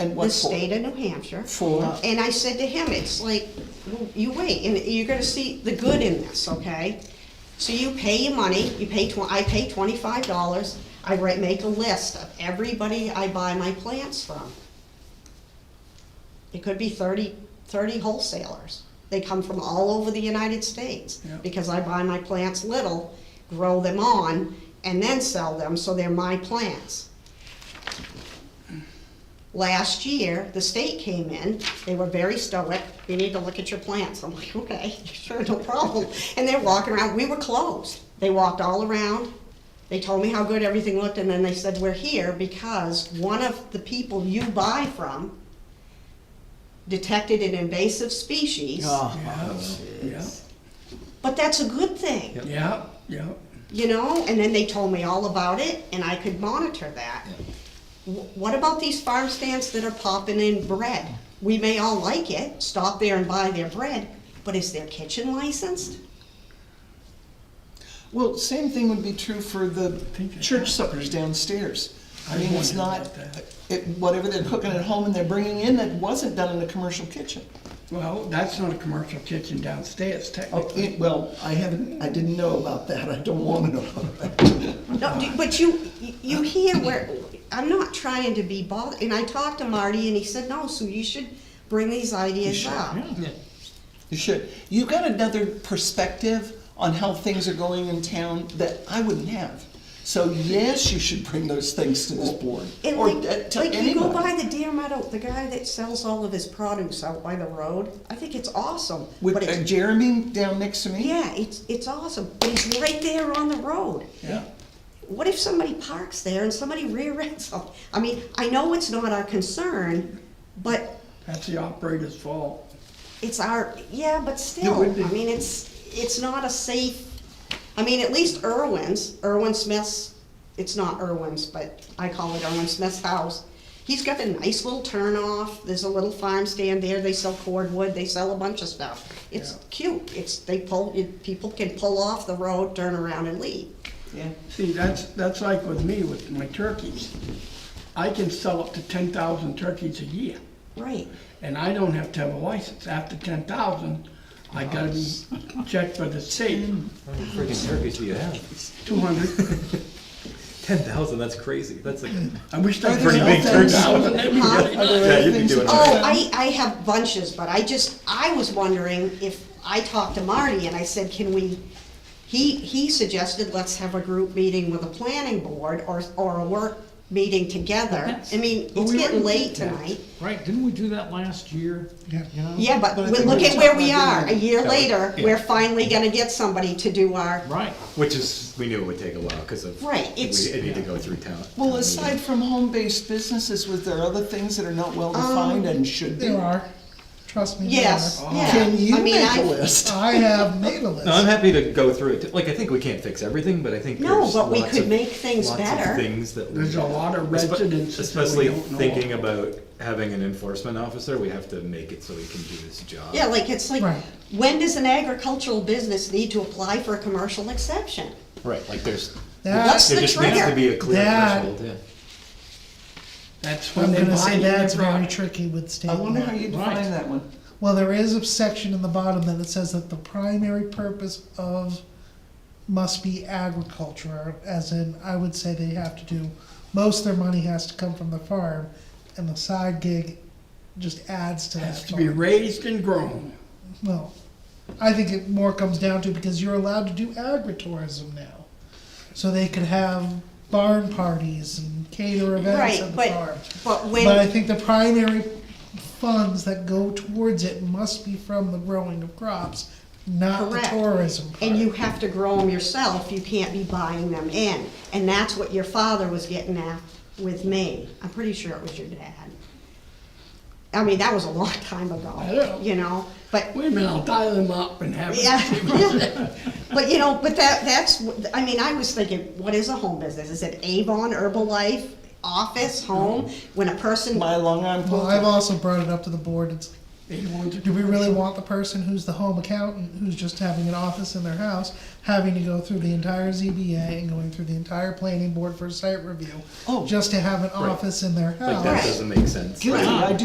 And the what for? state of New Hampshire. For? And I said to him, it's like, well, you wait, and you're gonna see the good in this, okay? So you pay your money, you pay tw- I pay twenty-five dollars, I write, make a list of everybody I buy my plants from. It could be 30 30 wholesalers. They come from all over the United States. Yeah. Because I buy my plants little, grow them on, and then sell them, so they're my plants. Last year, the state came in, they were very stoic, you need to look at your plants. I'm like, okay, sure, no problem. And they're walking around, we were closed. They walked all around, they told me how good everything looked, and then they said, we're here because one of the people you buy from detected an invasive species. Ah. Yeah, But that's a good thing, yeah, yeah. you know? And then they told me all about it, and I could monitor that. Wh- What about these farm stands that are popping in bread? We may all like it, stop there and buy their bread, but is their kitchen licensed? Well, same thing would be true for the Think it- church suppers downstairs. I I mean, it's wondered not, about that. it, whatever they're cooking at home and they're bringing in, that wasn't done in a commercial kitchen. Well, that's not a commercial kitchen downstairs Oh, technically. it, well, I haven't, I didn't know about that, I don't wanna know about that. No, do- but you, you- you hear where, I'm not trying to be bothered, and I talked to Marty, and he said, no, Sue, you should bring these ideas should, up. Yeah. You should, you got another perspective on how things are going in town that I wouldn't have. So yes, you should bring those things to this board, And or like, uh, to like you go by anybody. the Deer Meadow, the guy that sells all of his produce out by the road, I think it's awesome. With but uh, it's, Jeremy down next to me. yeah, it's it's awesome, but he's right there on the road. Yeah. What if somebody parks there and somebody rear ends them? I mean, I know it's not our concern, but That's the operator's fault. it's our yeah. But It still, would be. I mean, it's it's not a safe. I mean, at least Irwin's, Irwin Smith's. It's not Irwin's, but I call it Irwin Smith's house. He's got a nice little turnoff. There's a little farm stand there. They sell cordwood. They sell a bunch of stuff. It's Yeah. cute. It's they pull it, people can pull off the road, turn around, and leave. Yeah. See, that's, that's like with me with my turkeys. I can sell up to ten thousand turkeys a year, Right. and I don't have to have a license. After ten thousand, I gotta be checked by the state, How many freaking turkeys do you have? two hundred. Ten thousand, that's crazy. That's like, I wish I could Pretty sell big ten turkey. thousand every Huh? day. Are there Yeah, other you'd be things doing that all you Oh, found? I, I have bunches, but I just, I was wondering if, I talked to Marty and I said, can we, he, he suggested, let's have a group meeting with a planning board or, or a work meeting together. I mean, But it's we getting already late did that, tonight. Right, didn't we do that last year? Yeah. You know? Yeah, but But I we- think look we at where talked we about are, a doing year Yeah. later, we're finally gonna get somebody to do our, Right, which is, we knew it would take a while because of. Right, we- it's- It needed to go through town. Well, aside from home-based businesses, was there other things that are not Um, well-defined and should be? There are, trust me. there yes, are. yeah. Can you I mean, make I- a list? I have made a list. No, I'm happy to go through it. Like, I think we can't fix everything, but I think No, there's but we lots could of- make things lots of better. Things that. we- There's a lot of Espe- residences that we Especially don't know thinking about having an enforcement officer, we have to make it so he can do his job. Yeah, like, it's like, Right. when does an agricultural business need to apply for a commercial exception? Right, like there's, That's the there just needs trigger. to be a clear That- threshold, yeah. That's when I'm they gonna buy say in that's their very product. tricky with state I wonder law. how you Right. define that one. Well, there is a section in the bottom that it says that the primary purpose of must be agriculture, as in, I would say they have to do, most of their money has to come from the farm, and the side gig just adds to that. Has to be farm. raised and grown. Well, I think it more comes down to because you're allowed to do agritourism now. So they could have barn parties and cater events Right, at the but, farm. but when. But I think the primary funds that go towards it must be from the growing of crops, not the Correct. tourism part. And you have to grow them yourself, you can't be buying them in. And that's what your father was getting at with me. I'm pretty sure it was your dad. I mean, that was a long time I know. ago, you know, but, Wait a minute, I'll dial him up and have. him yeah. But, you know, but that, that's, wh- I mean, I was thinking, what is a home business? Is it Avon, Herbalife, office, home? When a person, Mm-hmm. My Long Island Well, I've Poultry. also brought it up to the board, it's, They want to Do we really want the person who's the home accountant, who's just having an office in their house, having to go through the entire ZBA and going through the entire planning board for a site review? Oh. Just to have an Right. office in their house? Like, that Right. doesn't make sense. Guilty, I do